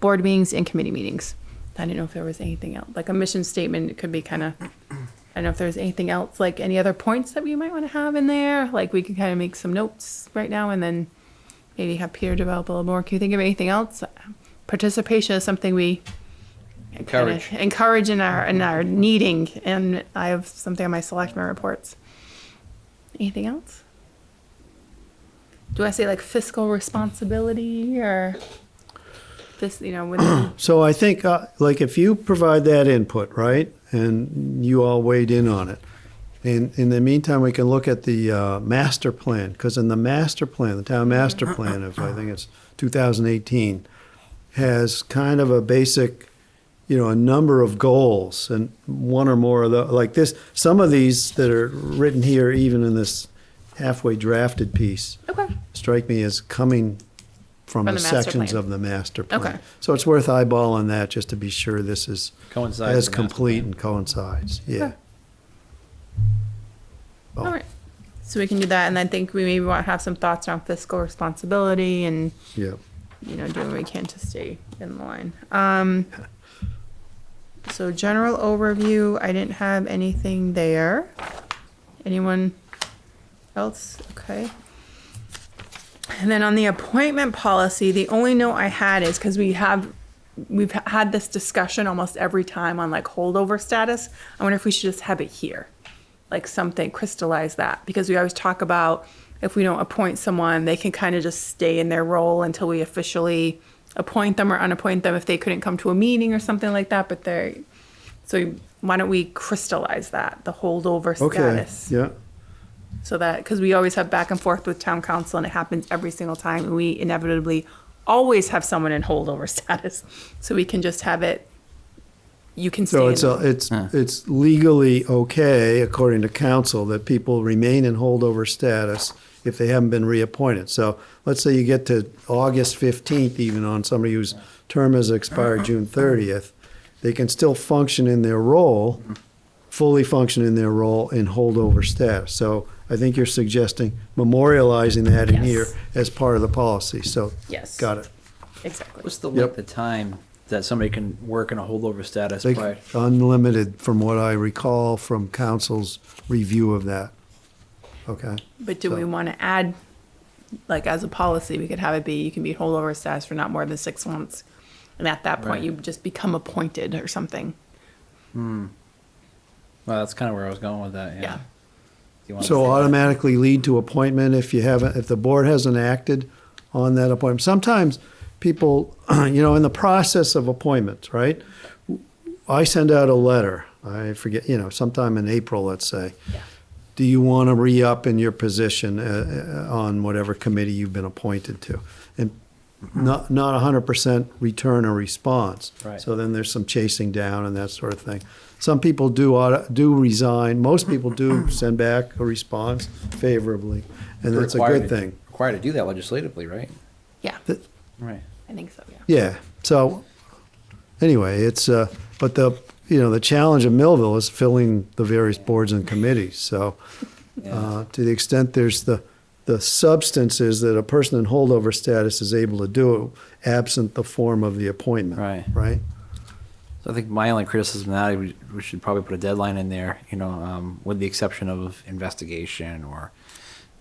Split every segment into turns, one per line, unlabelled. board meetings and committee meetings. I didn't know if there was anything else, like a mission statement, it could be kind of, I don't know if there's anything else, like any other points that we might want to have in there, like we can kind of make some notes right now and then maybe have Peter develop a little more. Can you think of anything else? Participation is something we kinda
Encourage.
encourage in our, in our meeting, and I have something on my selectmen reports. Anything else? Do I say like fiscal responsibility or this, you know, with
So I think, uh, like, if you provide that input, right, and you all weighed in on it, and in the meantime, we can look at the uh, master plan, because in the master plan, the town master plan of, I think it's 2018, has kind of a basic, you know, a number of goals, and one or more of the, like this, some of these that are written here, even in this halfway drafted piece,
Okay.
strike me as coming from
From
the
the master
sections
plan.
of the master plan.
Okay.
So it's worth eyeballing that just to be sure this is
Coincides
as
with the master
complete
plan.
and coincides, yeah.
Okay. All right. So we can do that, and I think we maybe want to have some thoughts around fiscal responsibility and,
Yeah,
you know, doing what we can to stay in line. Um, so general overview, I didn't have anything there. Anyone else? Okay. And then on the appointment policy, the only note I had is because we have, we've had this discussion almost every time on like holdover status. I wonder if we should just have it here, like something crystallize that, because we always talk about if we don't appoint someone, they can kind of just stay in their role until we officially appoint them or unappoint them if they couldn't come to a meeting or something like that, but they're, so why don't we crystallize that, the holdover
okay,
status?
yeah,
So that, because we always have back and forth with town council and it happens every single time and we inevitably always have someone in holdover status. So we can just have it, you can stay.
so
in-
it's, a- it's, it's legally okay, according to council, that people remain in holdover status if they haven't been reappointed. So let's say you get to August fifteenth even on somebody whose term has expired June thirtieth, they can still function in their role, fully function in their role in holdover status. So I think you're suggesting memorializing that
Yes.
in here as part of the policy, so.
Yes.
Got it.
Exactly.
What's the
Yep.
length of time that somebody can work in a holdover status
They-
prior?
Unlimited, from what I recall from council's review of that. Okay,
But do we
So-
want to add, like as a policy, we could have it be, you can be holdover status for not more than six months. And at that point,
Right.
you just become appointed or something.
Well, that's kind of where I was going with that. Yeah.
Yeah.
Do you wanna
so
say that?
automatically lead to appointment if you haven't, if the board hasn't acted on that appointment. Sometimes people, you know, in the process of appointments, right? I send out a letter, I forget, you know, sometime in April, let's say. Do you want to re-up in your position uh, uh, on whatever committee you've been appointed to? And not, not 100% return a response.
Right.
So then there's some chasing down and that sort of thing. Some people do, auto- do resign, most people do send back a response favorably, and
We're
that's a
required
good
to-
thing.
Required to do that legislatively, right?
Yeah,
Th-
Right.
I think so, yeah.
Yeah. So anyway, it's uh, but the you know the challenge of Millville is filling the various boards and committees. So uh, to the extent there's the the substance is that a person in holdover status is able to do it, absent the form of the appointment.
Right.
Right.
So I think my only criticism now, we, we should probably put a deadline in there, you know, um, with the exception of investigation or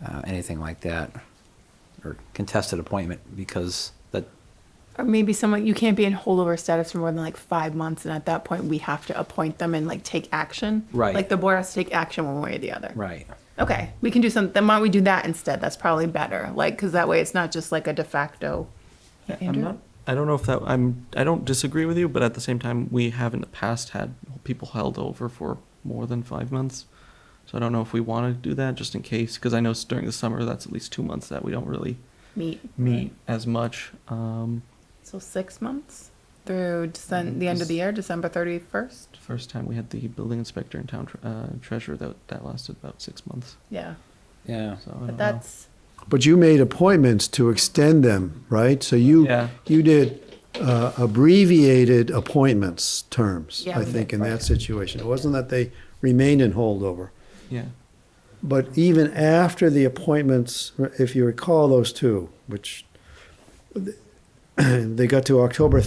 uh, anything like that, or contested appointment, because that,
Or maybe someone, you can't be in holdover status for more than like five months, and at that point, we have to appoint them and like take action.
Right.
Like the board has to take action one way or the other.
right.
Okay, we can do something, then why don't we do that instead? That's probably better, like, because that way it's not just like a de facto.
I'm not. I don't know if that. I'm. I don't disagree with you, but at the same time, we have in the past had people held over for more than five months. So I don't know if we want to do that just in case, because I know s- during the summer that's at least two months that we don't really
Meet,
meet as much. Um,
so six months through Decem- the end of the year, December thirty-first?
first time we had the building inspector and town tre- uh, treasurer that that lasted about six months.
Yeah,
Yeah.
So I don't know.
but that's,
But you made appointments to extend them, right? So you
Yeah.
you did uh, abbreviated appointments terms.
Yeah,
I
we
think
did.
in that situation, it wasn't that they remained in holdover.
yeah.
But even after the appointments, if you recall those two, which they got to October